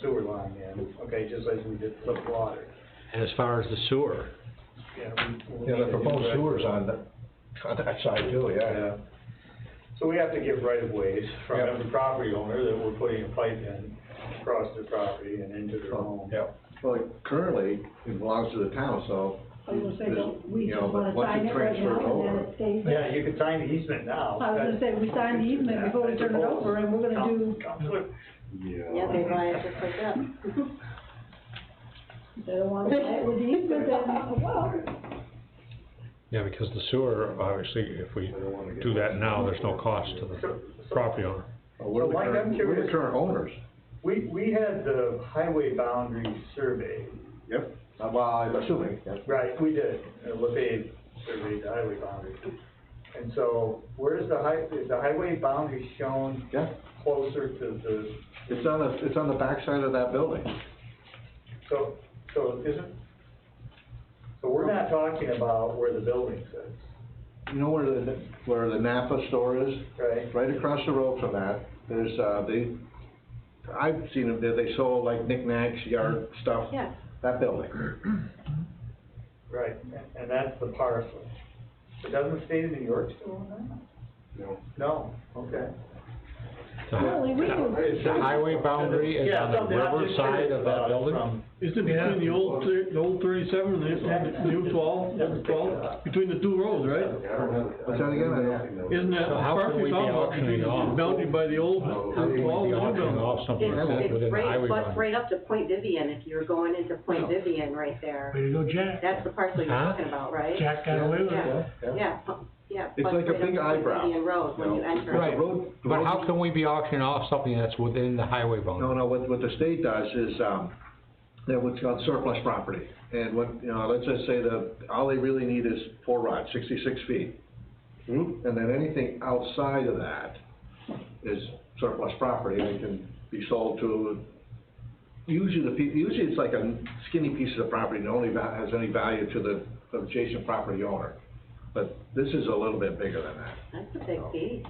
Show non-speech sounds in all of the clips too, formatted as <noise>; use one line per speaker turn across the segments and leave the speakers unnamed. sewer line in, okay, just like we did flip water.
And as far as the sewer,
Yeah, we- we'll
Yeah,
need
the
to
proposed
do that.
sewers on the, on that side too, yeah.
Yeah. So we have to give right of ways from
Yeah.
every property owner that we're putting a pipe in across their property and into their home.
Yeah,
Well, currently, it belongs to the town, so.
I was gonna say,
there's-
don't we
you
just
know,
wanna
once
sign it right
transfer
now and then
over-
it stays
Yeah,
there?
you could sign the easement now.
I was gonna say, we signed the easement before we turn it over, and we're gonna do-
Counselor,
Yeah, they buy it just like that.
If <laughs> They don't wanna play it with the easement, then, well,
yeah, because the sewer, obviously, if we do that now, there's no cost to the property owner.
Well, Uh, We're the
Mike, I'm
current, we're
curious.
the current owners.
We, we had the highway boundary survey,
Yep. Uh, Well, I'm assuming, yeah.
right, we did, uh, LaFave surveyed the highway boundary. And so, where's the high, is the highway boundary shown
yeah.
closer to the,
It's on the, it's on the backside of that building.
so, so it isn't? So we're not talking about where the building sits,
You know where the, where the Napa store is?
right?
Right across the road from that, there's, uh, they, I've seen them there, they sold like knickknacks, yard stuff.
Yeah.
That building.
Right, and that's the parcel. But doesn't the state of New York still own that? No. No, okay.
really, we do.
The highway boundary is on the river side of that building?
Isn't it between the old, thir- the old thirty-seven and the the new twelve, old twelve, between the two roads, right?
What's that again? I don't-
Isn't that
So how
property
can we be
talking about
auctioning
between
off?
the bounded by the old
How would we be
twelve and the new
auctioning
twelve?
off something like that
It's,
within
it's
the
right,
highway
butts
boundary?
right up to Point Vivian, if you're going into
Oh.
Point Vivian right there.
Way to go, Jack.
That's the parcel you're
Huh?
talking about, right?
Jack got away with it.
Yeah,
yeah.
yeah, pu- yeah.
It's
butts
like a
right up
big
to Point
eyebrow,
Vivian Road when
you
you
know.
enter.
Right,
The road- the
but
road-
how can we be auctioning off something that's within the highway
No,
boundary?
no, what, what the state does is, um, they're what's called surplus property. And what, you know, let's just say the, all they really need is four rods, sixty-six feet. And then anything outside of that is surplus property and can be sold to, usually the people, usually it's like a skinny piece of property that only va- has any value to the adjacent property owner. But this is a little bit bigger than that.
That's a big piece.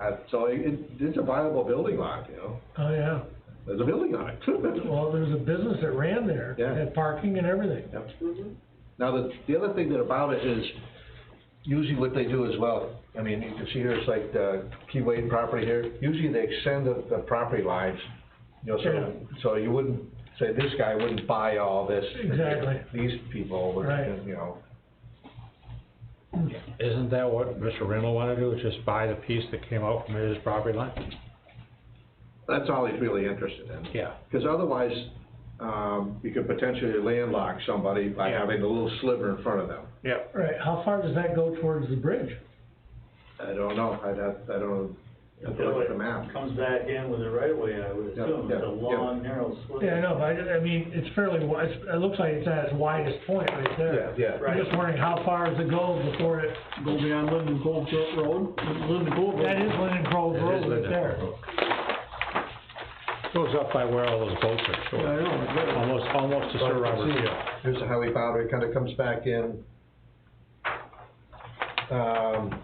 Uh, so it, it's a viable building lot, you know,
Oh, yeah.
there's a building on <laughs> it.
Well, there was a business that ran there.
Yeah.
Had parking and everything.
Mhm.
Now, the, the other thing that about it is, usually what they do as well, I mean, you can see here, it's like the Keyway property here, usually they extend the, the property lines, you know, so, so you wouldn't, say, this guy wouldn't buy all this.
Exactly.
These people would,
Right.
you know,
Isn't that what Mr. Rennell wanted to do, is just buy the piece that came out from his property line?
that's all he's really interested in.
Yeah.
Because otherwise, um, you could potentially landlock somebody by
Yeah.
having a little sliver in front of them.
Right, how far does that go towards the bridge?
I don't know, I'd have, I don't, I'd have to look at the map.
Comes back in with the right of way, I would
Yeah,
assume, it's a
yeah, yeah.
long, narrow slit.
Yeah, I know, but I, I mean, it's fairly wide, it looks like it's at its widest point right there.
Yeah, yeah.
I'm just wondering how far does it go before it,
Go beyond Linden Cove Road, Linden Cove Road.
that is Linden Grove
It is
Road right
Linden
there.
Grove. Goes up by where all those boats are
I
stored,
know, but-
almost, almost to Sir Robert Field.
Here's the highway boundary, kinda comes back in, um,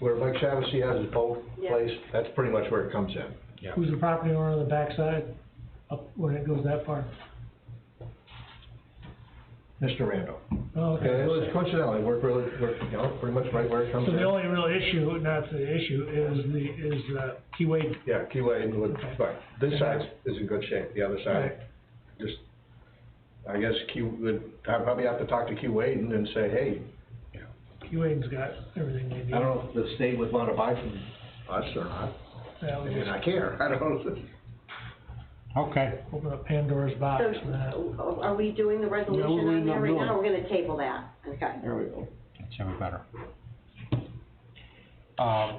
where Mike Shaughnessy has his boat
Yeah.
place, that's pretty much where it comes in.
Who's the property owner on the backside, up when it goes that far?
Mr. Randall.
Oh,
Okay,
okay.
it was coincidentally, we're really, we're, you know, pretty much right where it comes
So the
in.
only real issue, not the issue, is the, is, uh, Keyway,
Yeah, Keyway Inwood, right, this side is in good shape, the other side, just, I guess Key would, I'd probably have to talk to Key Waden and say, hey,
Keyway's got everything they need.
I don't know if the state would wanna buy from us or not,
That
I
would
mean,
just
I care, I don't know.
Okay.
open up Pandora's box
So,
for that.
uh, are we doing the resolution on that right now? We're gonna table that, okay.
There we go.
It's gonna be better. Um,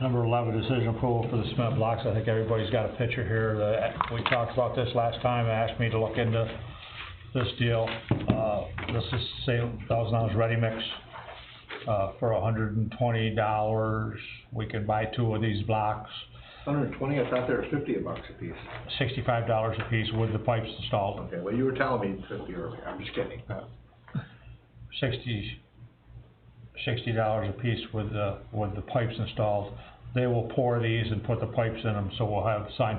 Number eleven, decision approval for the cement blocks. I think everybody's got a picture here. The- We talked about this last time. Asked me to look into this deal. Uh, this is same thousand ounce ready mix, uh, for hundred and twenty dollars. We can buy two of these blocks,
Hundred and twenty, I thought they were fifty bucks a piece.
sixty-five dollars apiece with the pipes installed.
Okay, well, you were telling me fifty earlier, I'm just kidding. Uh,
sixty, sixty dollars a piece with the, with the pipes installed. They will pour these and put the pipes in them, so we'll have signed